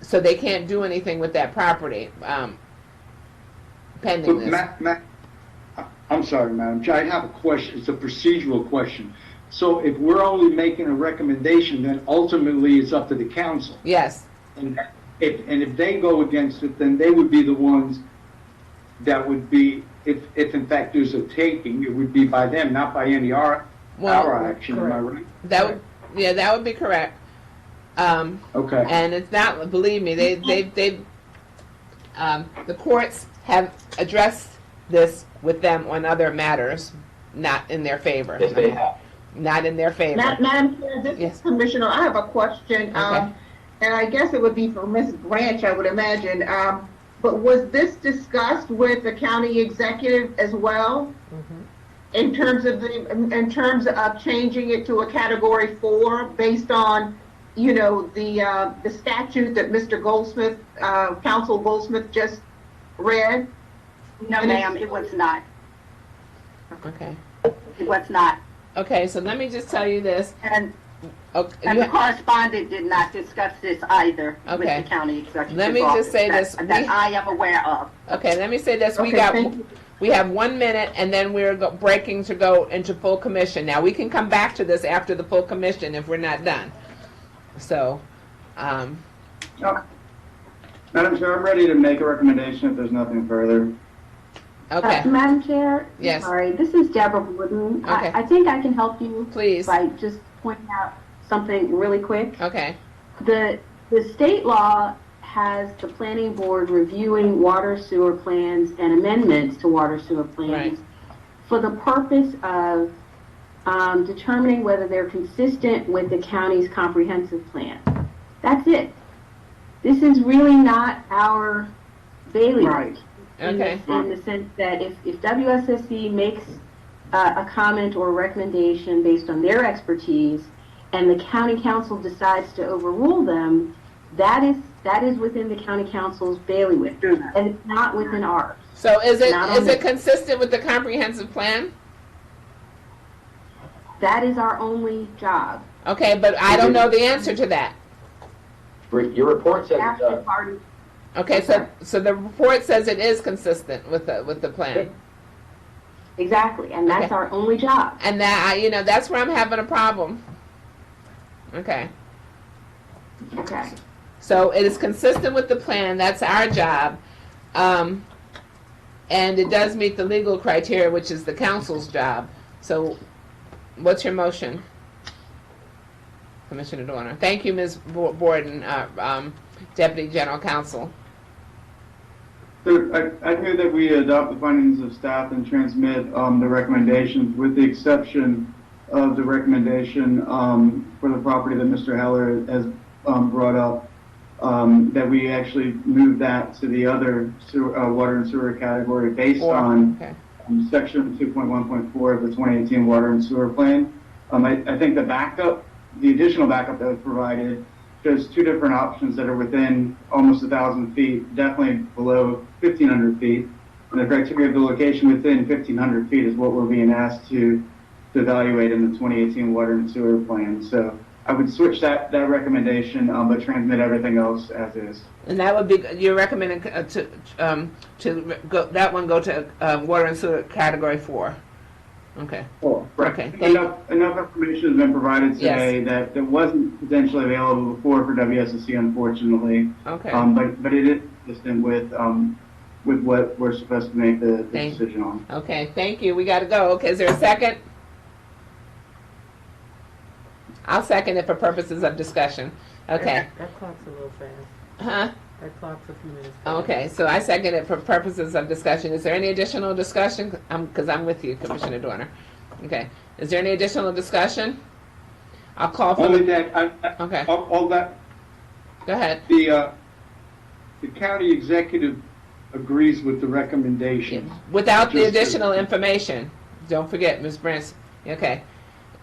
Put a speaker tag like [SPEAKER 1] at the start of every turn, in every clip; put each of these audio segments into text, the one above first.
[SPEAKER 1] so they can't do anything with that property, um, pending
[SPEAKER 2] But
[SPEAKER 1] this.
[SPEAKER 2] Ma, ma, I- I'm sorry, Madam Chair, I have a question, it's a procedural question. So if we're only making a recommendation, then ultimately it's up to the council.
[SPEAKER 1] Yes,
[SPEAKER 2] And if, and if they go against it, then they would be the ones that would be, if, if in fact there's a taking, it would be by them, not by any our,
[SPEAKER 1] Well,
[SPEAKER 2] our action, am I right?
[SPEAKER 1] that would, yeah, that would be correct. Um,
[SPEAKER 2] Okay,
[SPEAKER 1] and it's not, believe me, they, they, they, um, the courts have addressed this with them on other matters, not in their favor.
[SPEAKER 3] Yes, they have.
[SPEAKER 1] Not in their
[SPEAKER 4] Ma-
[SPEAKER 1] favor.
[SPEAKER 4] Madam Chair, this
[SPEAKER 1] Yes.
[SPEAKER 4] is Commissioner, I have a question,
[SPEAKER 1] Okay.
[SPEAKER 4] um, and I guess it would be for Ms. Branch, I would imagine. um, But was this discussed with the county executive as well? In terms of the, in in terms of changing it to a category four based on, you know, the, uh, the statute that Mr. Goldsmith, uh, Council Goldsmith just read?
[SPEAKER 5] No, ma'am, it was not.
[SPEAKER 1] Okay.
[SPEAKER 5] It was not.
[SPEAKER 1] Okay, so let me just tell you this.
[SPEAKER 5] And,
[SPEAKER 1] Okay,
[SPEAKER 5] and
[SPEAKER 1] you-
[SPEAKER 5] the correspondent did not discuss this either with
[SPEAKER 1] Okay.
[SPEAKER 5] the county executive
[SPEAKER 1] Let me just
[SPEAKER 5] office
[SPEAKER 1] say
[SPEAKER 5] that-
[SPEAKER 1] this. We-
[SPEAKER 5] That I am aware of.
[SPEAKER 1] Okay, let me say this, we
[SPEAKER 4] Okay,
[SPEAKER 1] got,
[SPEAKER 4] thank you.
[SPEAKER 1] we have one minute, and then we're go- breaking to go into full commission. Now, we can come back to this after the full commission if we're not done. So, um,
[SPEAKER 6] Madam Chair, I'm ready to make a recommendation if there's nothing further.
[SPEAKER 1] okay,
[SPEAKER 7] Uh, Madam Chair?
[SPEAKER 1] Yes.
[SPEAKER 7] Sorry, this is Deborah Wooden. I-
[SPEAKER 1] Okay.
[SPEAKER 7] I think I can help you
[SPEAKER 1] please,
[SPEAKER 7] by just pointing out something really quick.
[SPEAKER 1] okay,
[SPEAKER 7] The, the state law has the planning board reviewing water sewer plans and amendments to water sewer
[SPEAKER 1] Right.
[SPEAKER 7] plans for the purpose of um, determining whether they're consistent with the county's comprehensive plan. That's it. This is really not our bailiwick.
[SPEAKER 4] Right.
[SPEAKER 7] In
[SPEAKER 1] okay,
[SPEAKER 7] the- In the sense that if, if WSSC makes uh, a comment or recommendation based on their expertise, and the county council decides to overrule them, that is, that is within the county council's bailiwick,
[SPEAKER 5] Do not.
[SPEAKER 7] and it's not within ours.
[SPEAKER 1] so is it,
[SPEAKER 7] Not on
[SPEAKER 1] is it
[SPEAKER 7] the-
[SPEAKER 1] consistent with the comprehensive plan?
[SPEAKER 7] That is our only job.
[SPEAKER 1] Okay, but I don't know the answer to that.
[SPEAKER 3] Re- Your report says uh, it
[SPEAKER 7] That's the
[SPEAKER 3] does.
[SPEAKER 7] party,
[SPEAKER 1] Okay, so, so the report says it is consistent with the, with the plan.
[SPEAKER 7] exactly, and that's
[SPEAKER 1] Okay.
[SPEAKER 7] our only job.
[SPEAKER 1] And that, I you know, that's where I'm having a problem. Okay.
[SPEAKER 7] Okay.
[SPEAKER 1] So it is consistent with the plan, that's our job. Um, and it does meet the legal criteria, which is the council's job. So what's your motion? Commissioner Doerner. Thank you, Ms. Bo- Borden, uh, um, Deputy General Counsel.
[SPEAKER 6] Sir, I, I hear that we adopt the findings of staff and transmit, um, the recommendations with the exception of the recommendation, um, for the property that Mr. Heller has, um, brought up, um, that we actually move that to the other sewer, uh, water and sewer category based
[SPEAKER 1] Or-
[SPEAKER 6] on
[SPEAKER 1] okay.
[SPEAKER 6] um, section 2.1.4 of the 2018 Water and Sewer Plan. Um, I, I think the backup, the additional backup that was provided, shows two different options that are within almost 1,000 feet, definitely below 1,500 feet. And the criteria of the location within 1,500 feet is what we're being asked to, to evaluate in the 2018 Water and Sewer Plan. So I would switch that, that recommendation, um, but transmit everything else as is.
[SPEAKER 1] And that would be, you're recommending uh, to, um, to go, that one go to, uh, water and sewer category four. Okay,
[SPEAKER 6] Right.
[SPEAKER 1] Okay, thank-
[SPEAKER 6] Enough, enough information has been provided today that, that wasn't potentially available before for WSSC unfortunately.
[SPEAKER 1] okay.
[SPEAKER 6] Um, but, but it is consistent with, um, with what we're supposed to make the, the
[SPEAKER 1] Thank-
[SPEAKER 6] decision on.
[SPEAKER 1] Okay, thank you. We gotta go. Okay, is there a second? I'll second it for purposes of discussion. Okay.
[SPEAKER 8] That- That clock's a little fast.
[SPEAKER 1] Huh?
[SPEAKER 8] That clock's a few minutes. fast.
[SPEAKER 1] Okay, so I second it for purposes of discussion. Is there any additional discussion? Um, cause I'm with you, Commissioner Doerner. Okay, is there any additional discussion? I'll call for
[SPEAKER 2] only
[SPEAKER 1] the,
[SPEAKER 2] that, I, I-
[SPEAKER 1] okay,
[SPEAKER 2] all, all that,
[SPEAKER 1] go ahead.
[SPEAKER 2] the, uh, the county executive agrees with the recommendation.
[SPEAKER 1] Without the
[SPEAKER 2] Just-
[SPEAKER 1] additional information, don't forget, Ms. Branch, okay?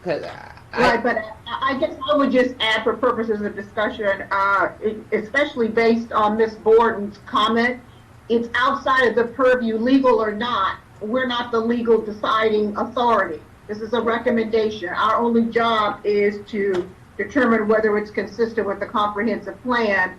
[SPEAKER 1] 'Cause I-
[SPEAKER 4] Right, but I- I guess I would just add for purposes of discussion, uh, especially based on Ms. Borden's comment, it's outside of the purview, legal or not, we're not the legal deciding authority. This is a recommendation. Our only job is to determine whether it's consistent with the comprehensive plan